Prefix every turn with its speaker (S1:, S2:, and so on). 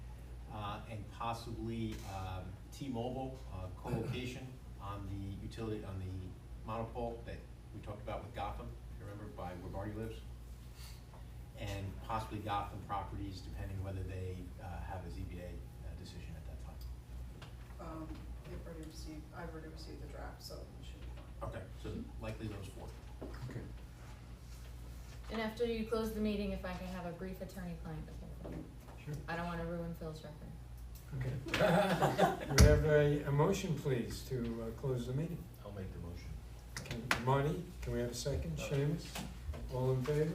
S1: uh, possibly um, T-Mobile uh, co-location on the utility, on the monopole that we talked about with Gotham, if you remember, by where Marty lives. And possibly Gotham properties, depending whether they uh, have a ZBA uh, decision at that time.
S2: Um, they've already received, I've already received the draft, so it should be fine.
S1: Okay, so likely those four.
S3: Okay.
S4: And after you close the meeting, if I can have a brief attorney-client opinion.
S3: Sure.
S4: I don't wanna ruin Phil's record.
S3: Okay. We have a, a motion, please, to uh, close the meeting.
S5: I'll make the motion.
S3: Okay, Marty, can we have a second? Seamus, all in favor?